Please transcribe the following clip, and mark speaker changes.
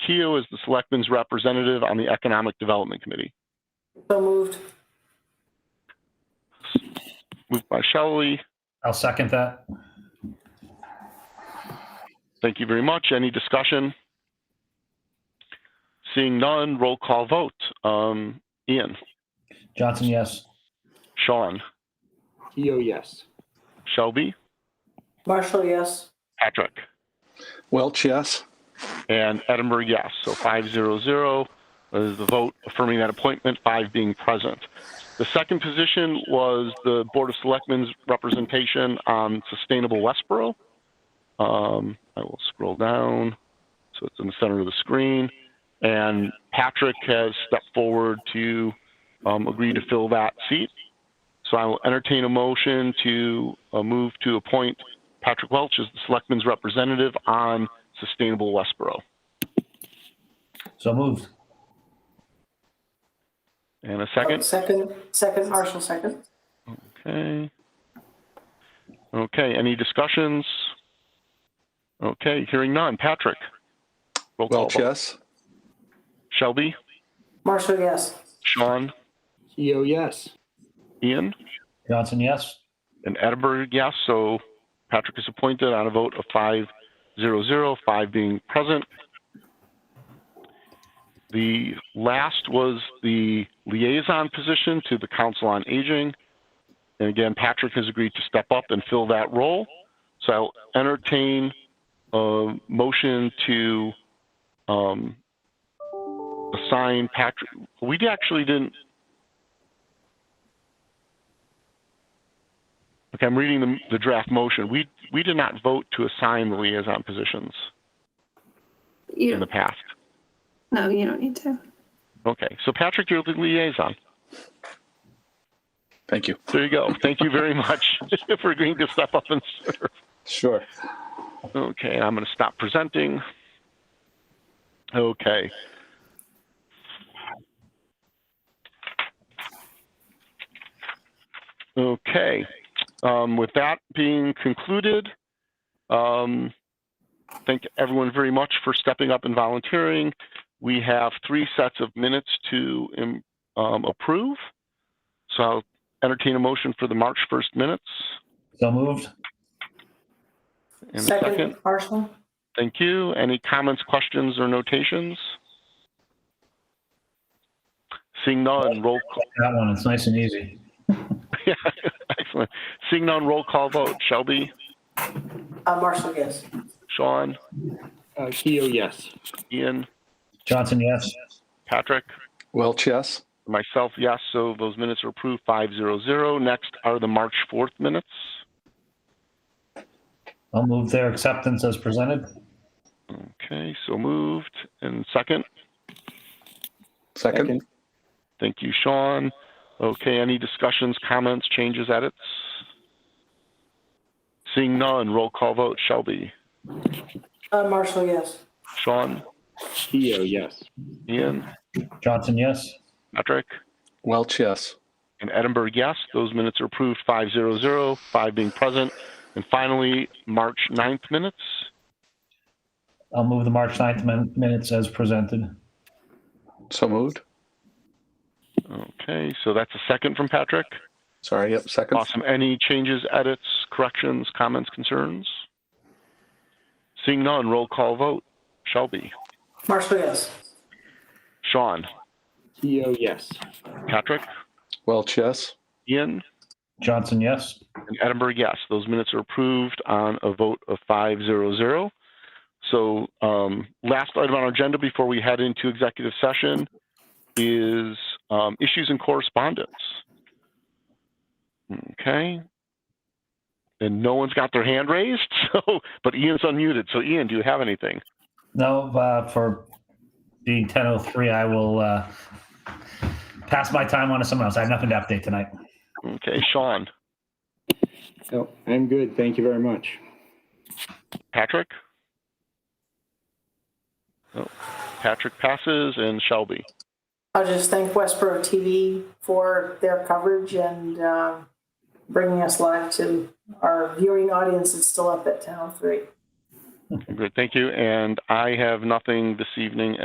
Speaker 1: Pugh as the Selectman's representative on the Economic Development Committee.
Speaker 2: So moved.
Speaker 1: Moved by Shelley.
Speaker 3: I'll second that.
Speaker 1: Thank you very much. Any discussion? Seeing none, roll call vote. Um, Ian,
Speaker 3: Johnson, yes.
Speaker 1: Sean,
Speaker 4: Keo, yes.
Speaker 1: Shelby,
Speaker 2: Marshall, yes.
Speaker 1: Patrick,
Speaker 5: Welch, yes.
Speaker 1: and Edinburgh, yes. So 500 is the vote affirming that appointment, five being present. The second position was the Board of Selectmen's representation on Sustainable Westboro. Um, I will scroll down. So it's in the center of the screen. And Patrick has stepped forward to um, agree to fill that seat. So I will entertain a motion to uh, move to appoint Patrick Welch as the Selectman's representative on Sustainable Westboro.
Speaker 3: So moved.
Speaker 1: And a second?
Speaker 2: Second, second, Marshall, second.
Speaker 1: Okay. Okay, any discussions? Okay, hearing none. Patrick? Roll call
Speaker 5: Welch,
Speaker 1: vote.
Speaker 5: yes.
Speaker 1: Shelby?
Speaker 2: Marshall, yes.
Speaker 1: Sean?
Speaker 4: Keo, yes.
Speaker 1: Ian?
Speaker 3: Johnson, yes.
Speaker 1: And Edinburgh, yes. So Patrick is appointed on a vote of five zero zero, five being present. The last was the liaison position to the Council on Aging. And again, Patrick has agreed to step up and fill that role. So I'll entertain a motion to um, assign Patrick. We actually didn't Okay, I'm reading the, the draft motion. We, we did not vote to assign the liaison positions in the
Speaker 6: You,
Speaker 1: past.
Speaker 6: no, you don't need to.
Speaker 1: Okay, so Patrick, you're the liaison.
Speaker 5: Thank you.
Speaker 1: There you go. Thank you very much for agreeing to step up and serve.
Speaker 5: Sure.
Speaker 1: Okay, I'm going to stop presenting. Okay. Okay, um, with that being concluded, um, thank everyone very much for stepping up and volunteering. We have three sets of minutes to um, um, approve. So I'll entertain a motion for the March 1st minutes.
Speaker 3: So moved.
Speaker 1: And a second.
Speaker 2: Marshall.
Speaker 1: Thank you. Any comments, questions, or notations? Seeing none, roll call.
Speaker 3: That one, it's nice and easy.
Speaker 1: Excellent. Seeing none, roll call vote. Shelby,
Speaker 2: Uh, Marshall, yes.
Speaker 1: Sean,
Speaker 4: Uh, Keo, yes.
Speaker 1: Ian,
Speaker 3: Johnson, yes.
Speaker 1: Patrick,
Speaker 5: Welch, yes.
Speaker 1: myself, yes. So those minutes are approved, 500. Next are the March 4th minutes.
Speaker 3: I'll move their acceptance as presented.
Speaker 1: Okay, so moved. And second,
Speaker 5: Second.
Speaker 1: thank you, Sean. Okay, any discussions, comments, changes, edits? Seeing none, roll call vote. Shelby,
Speaker 2: Uh, Marshall, yes.
Speaker 1: Sean,
Speaker 4: Keo, yes.
Speaker 1: Ian,
Speaker 3: Johnson, yes.
Speaker 1: Patrick,
Speaker 5: Welch, yes.
Speaker 1: and Edinburgh, yes. Those minutes are approved, 500, five being present. And finally, March 9th minutes.
Speaker 3: I'll move the March 9th min- minutes as presented.
Speaker 5: So moved.
Speaker 1: Okay, so that's a second from Patrick.
Speaker 5: Sorry, yep, second.
Speaker 1: Awesome. Any changes, edits, corrections, comments, concerns? Seeing none, roll call vote. Shelby,
Speaker 2: Marshall, yes.
Speaker 1: Sean,
Speaker 4: Keo, yes.
Speaker 1: Patrick,
Speaker 5: Welch, yes.
Speaker 1: Ian,
Speaker 3: Johnson, yes.
Speaker 1: And Edinburgh, yes. Those minutes are approved on a vote of 500. So um, last item on our agenda before we head into executive session is um, issues and correspondence. Okay. And no one's got their hand raised, so but Ian's unmuted. So Ian, do you have anything?
Speaker 3: No, uh, for being 10:03, I will uh, pass my time on to someone else. I have nothing to update tonight.
Speaker 1: Okay, Sean,
Speaker 4: Oh, I'm good. Thank you very much.
Speaker 1: Patrick. Oh, Patrick passes and Shelby.
Speaker 2: I'll just thank Westboro TV for their coverage and uh, bringing us live to our viewing audience that's still up at Town 3.
Speaker 1: Good, thank you. And I have nothing this evening